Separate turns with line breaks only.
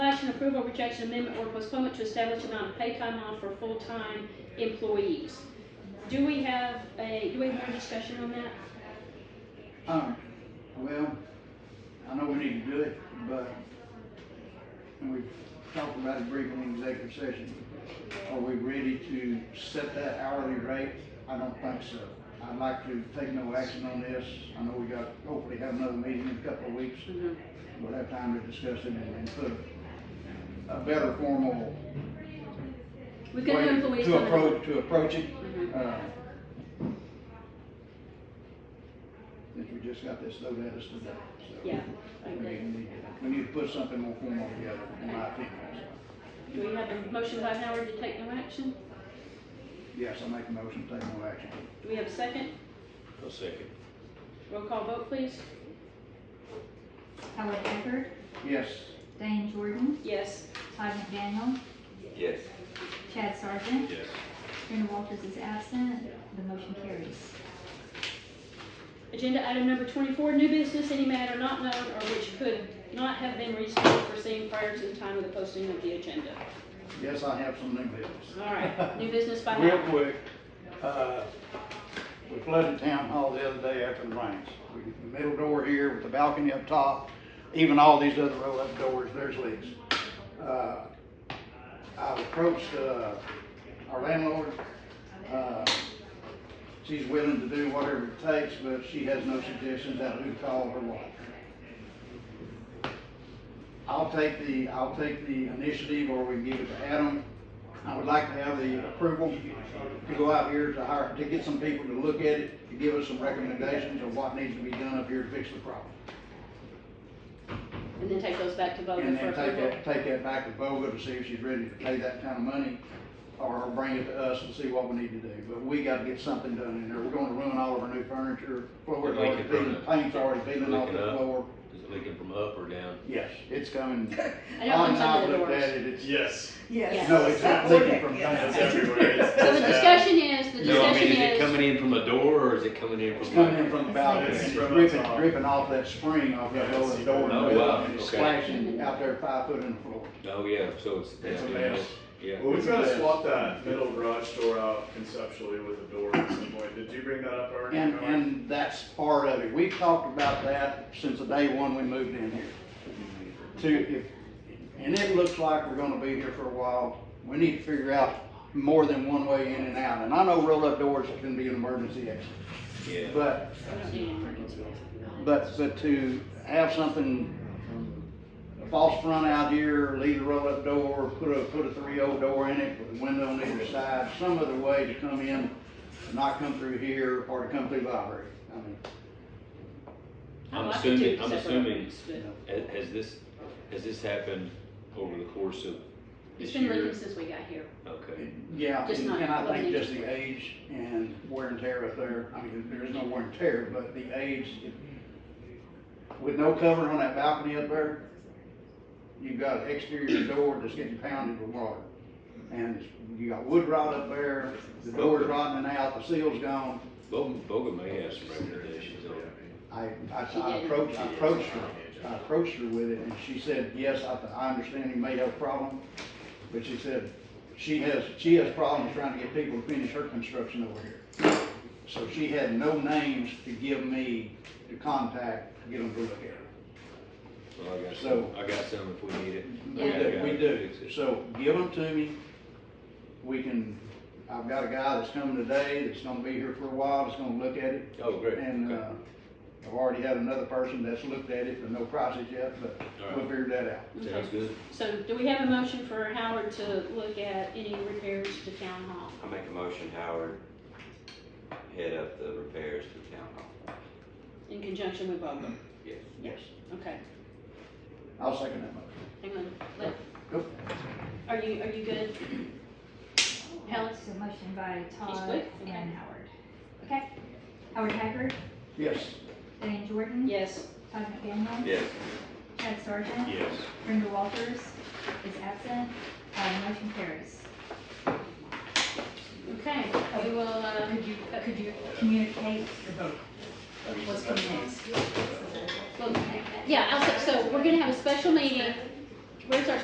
approve or reject an amendment or postponement to establish amount of pay time off for full-time employees. Do we have a, do we have more discussion on that?
Um, well, I know we need to do it, but, and we talked about it briefly in executive session. Are we ready to set that hourly rate? I don't think so. I'd like to take no action on this. I know we got, hopefully have another meeting in a couple of weeks.
Mhm.
We'll have time to discuss it and, and put a better formal
We've got
way
new employees
to
coming on.
approach, to approach it.
Mhm.
Uh, Since we just got this thrown at us today, so.
Yeah, I
We
agree.
need, we need to put something more formal together, in my opinion.
Do we have a motion by Howard to take no action?
Yes, I make a motion, to take no action.
Do we have a second?
I'll second.
Roll call vote, please.
Howard Haggard,
Yes,
Diane Jordan,
Yes.
Todd McDaniel,
Yes.
Chad Sargent,
Yes.
Brenda Walters is absent, the motion carries.
Agenda item number twenty-four, new business, any matter not known or which could not have been reasonably foreseen prior to the time of the posting of the agenda.
yes, I have some new business.
All right, new business by
Real
Howard.
quick, uh, we flooded town hall the other day after the rains. We- the Middle door here with the balcony up top, even all these other roll-up doors, there's leaks. Uh, I've approached, uh, our landlord. Uh, She's willing to do whatever it takes, but she has no suggestions as to who called or what. I'll take the, I'll take the initiative or we can give it to Adam. I would like to have the approval to go out here to hire, to get some people to look at it, to give us some recommendations of what needs to be done up here to fix the problem.
And then take those back to Bowman
And
for
then take
approval.
that, take that back to Boga to see if she's ready to pay that kind of money or bring it to us and see what we need to do. But we gotta get something done in there. We're gonna ruin all of our new furniture, floor's
Leaking
already peeling,
from the-
paint's already peeling off the
Leaking up.
floor.
Is it leaking from up or down?
Yes, it's coming.
I know it comes
I've
under the
looked at
doors.
it, it's-
Yes,
Yeah.
Yes.
No, it's not leaking from
it's
down.
everywhere. It's,
So the discussion is, the
No, I mean,
discussion
is it
is,
coming in from a door or is it coming in
It's
from?
coming in from the balcony,
It's
it's
from
dripping,
outside.
dripping off that spring off that
Yeah,
lower
it's-
door.
Oh,
and
wow,
It's
okay.
splashing out there five foot in the floor.
Oh, yeah, so it's.
It's a
yeah,
mess.
Yeah.
Well, we've
It's a
got to
mess.
swap that middle garage door out conceptually with a door at some point. Did you bring that up already?
And,
Howard?
and that's part of it. We've talked about that since the day one we moved in here. To, if, and it looks like we're gonna be here for a while. We need to figure out more than one way in and out. And I know roll-up doors can be an emergency exit,
Yeah.
but
I don't need an emergency exit.
But, but to have something, a false front out here, leave the roll-up door, put a, put a three-o door in it, with a window on either side, some other way to come in, not come through here, or to come through library. I mean,
I'd
I'm
like to do
assuming- I'm
separate
assuming-
rooms, but
Has, has this, has this happened over the course of
It's
this
been leaking
year?
since we got here.
Okay.
Yeah,
Just
and
not-
and I
wasn't
think just the age and wear and tear up there, I mean, there is no wear and tear, but the age, if- with no cover on that balcony up there, you've got an exterior door that's getting pounded with water. And you got wood rot up there, the door's rotting out, the seal's gone.
Boga, Boga may have some recommendations on it.
I, I,
She
I
did.
approached, I approached her, I approached her with it, and she said, yes, I, I understand you may have a problem, but she said, she has, she has problems trying to get people to finish her construction over here. So she had no names to give me to contact, to get them to look at it.
Well, I got
So-
some, I got some if we need it.
We
I
do,
got
we
it.
do.
Fix it.
So give them to me. We can, I've got a guy that's coming today, that's gonna be here for a while, that's gonna look at it.
Oh, great.
And,
Okay.
uh, I've already had another person that's looked at it, but no prices yet, but
All
we'll
right.
figure that out.
Sounds
Okay.
good.
So do we have a motion for Howard to look at any repairs to town hall?
I make a motion, Howard, head up the repairs to town hall.
In conjunction with Bowman?
Yes.
Yes.
Okay,
I'll second that motion.
hang on, let,
Go.
are you, are you good? Helen?
So motion by Todd
quick, okay.
and Howard. Okay. Howard Haggard,
Yes.
Diane Jordan.
Yes,
Todd McDaniel.
Yes.
Chad Sargent.
Yes.
Brenda Walters is absent, uh, the motion carries.
okay, we will, uh,
Could you, could you communicate your vote?
I mean,
What's
I-
coming next?
well, yeah, I'll, so we're gonna have a special meeting. Where's our